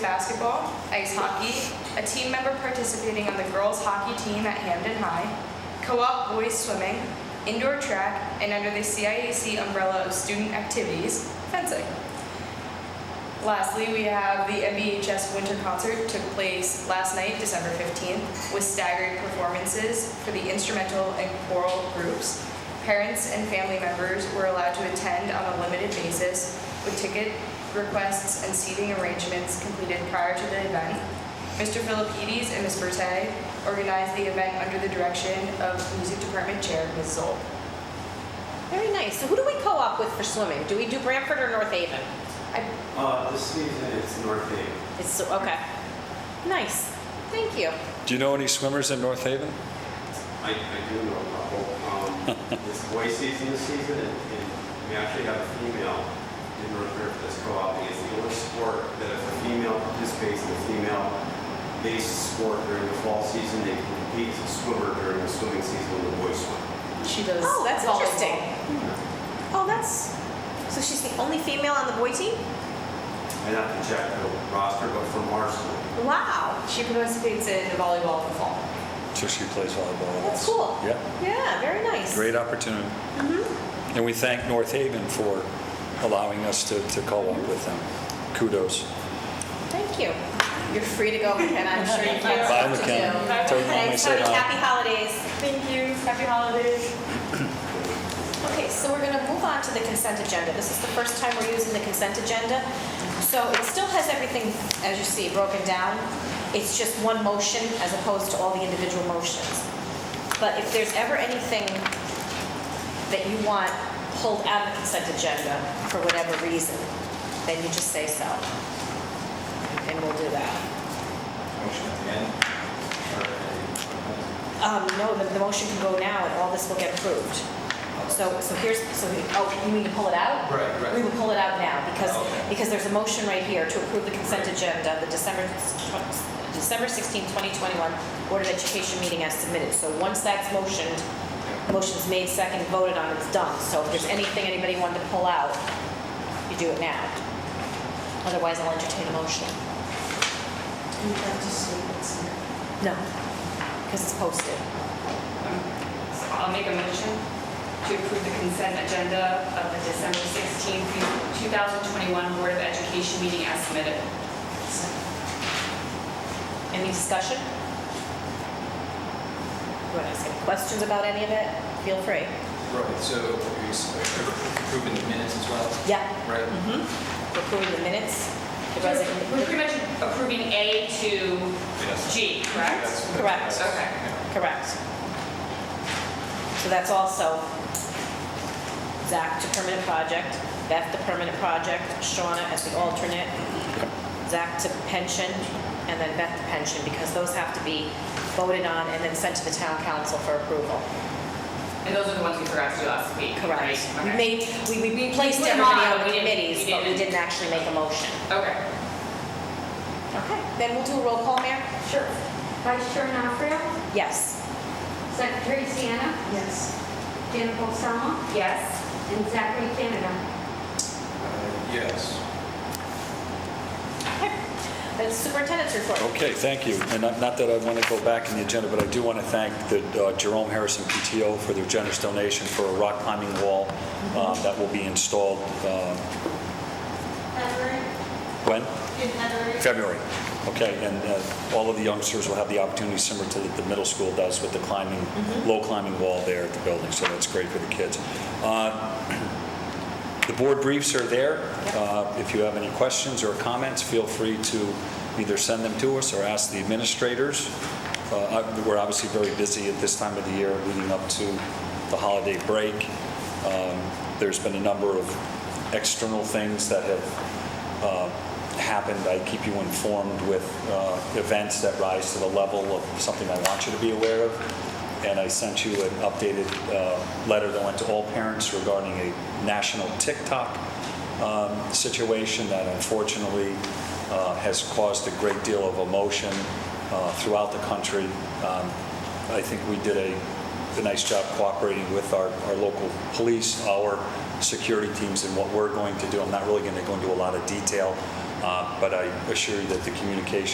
basketball, ice hockey, a team member participating on the girls' hockey team at Hamden High, co-op boys swimming, indoor track, and under the CIAC umbrella of student activities, fencing. Lastly, we have the MBHS Winter Concert took place last night, December 15th, with staggered performances for the instrumental and choral groups. Parents and family members were allowed to attend on a limited basis with ticket requests and seating arrangements completed prior to the event. Mr. Philippides and Ms. Berte organized the event under the direction of Music Department Chair Ms. Zoll. Very nice. So who do we co-op with for swimming? Do we do Brantford or North Haven? I Uh, this season it's North Haven. It's, okay. Nice. Thank you. Do you know any swimmers in North Haven? I, I do know a couple. Um, it's boy season this season, and, and we actually have a female in North River that's co-oping. It's the only sport that if a female participates in a female-based sport during the fall season, they can compete as a swimmer during the swimming season when the boys swim. She does. Oh, that's volleyball. interesting. Hmm. Oh, that's, so she's the only female on the boy team? I'd have to check the roster, but from our school, Wow. She participates in the volleyball in the fall. So she plays volleyball. That's cool. Yeah, Yeah, very nice. great opportunity. Mm-hmm. And we thank North Haven for allowing us to, to co-op with them. Kudos. Thank you. You're free to go, McKenna. I'm sure you Thank you. have stuff Bye, to McKenna. do. Bye. Tell your mom I Thanks, said Tony. hi. Happy holidays. Thank you. Happy holidays. Okay, so we're going to move on to the consent agenda. This is the first time we're using the consent agenda. So it still has everything, as you see, broken down. It's just one motion as opposed to all the individual motions. But if there's ever anything that you want pulled out of the consent agenda for whatever reason, then you just say so. And we'll do that. Motion at the end? Or Um, at No, the the motion can go now and all this will get approved. So, so here's, so, we- oh, you mean to pull it out? the- Right, We right. will pull it out now because, Okay. because there's a motion right here to approve the consent agenda, the December, December 16, 2021 Board of Education meeting as submitted. So once that's motioned, motion's made, second, voted on, it's done. So if there's anything anybody wanted to pull out, you do it now. Otherwise, I'll entertain a motion. You have to see what's in it. No. Because it's posted. So I'll make a motion to approve the consent agenda of the December 16th, 2021 Board of Education meeting as submitted. Any discussion? You want to ask any questions about any of it? Feel free. Right, so are you s- approving the minutes as well? Yeah. Right? Mm-hmm. Approving the minutes. The resign- We're pretty much approving A to Yes. G, correct? Yes. Correct. Okay. Yeah. Correct. So that's also Zach to permanent project, Beth to permanent project, Shauna as the alternate, Zach to pension, and then Beth to pension, because those have to be voted on and then sent to the town council for approval. And those are the ones we forgot to do last week, right? Correct. We Okay. made, we- we replaced put them everybody on, on but the we didn't- committees, we but we didn't- didn't actually make a motion. Okay. Okay, then we'll do a roll call, Mayor? Sure. Vice Chair Nafrio, Yes. Secretary Sienna, Yes, Jennifer Salma, Yes. and Zachary Canada. Uh, Yes. Okay. Then superintendent's report. Okay, thank you. And not not that I want to go back in the agenda, but I do want to thank the uh, Jerome Harrison PTO for their generous donation for a rock climbing wall um, that will be installed, uh, when? February. Okay, and uh, all of the youngsters will have the opportunity similar to what the middle school does with the climbing, low climbing wall there at the building, so that's great for the kids. Uh, The board briefs are there. Uh, If you have any questions or comments, feel free to either send them to us or ask the administrators. Uh, I- We're obviously very busy at this time of the year leading up to the holiday break. Um, There's been a number of external things that have uh, happened, I keep you informed with uh, events that rise to the level of something I want you to be aware of. And I sent you an updated uh, letter that went to all parents regarding a national TikTok um, situation that unfortunately uh, has caused a great deal of emotion uh, throughout the country. Um, I think we did a, a nice job cooperating with our, our local police, our security teams, and what we're going to do. I'm not really going to go into a lot of detail Uh, But I assure you that the communication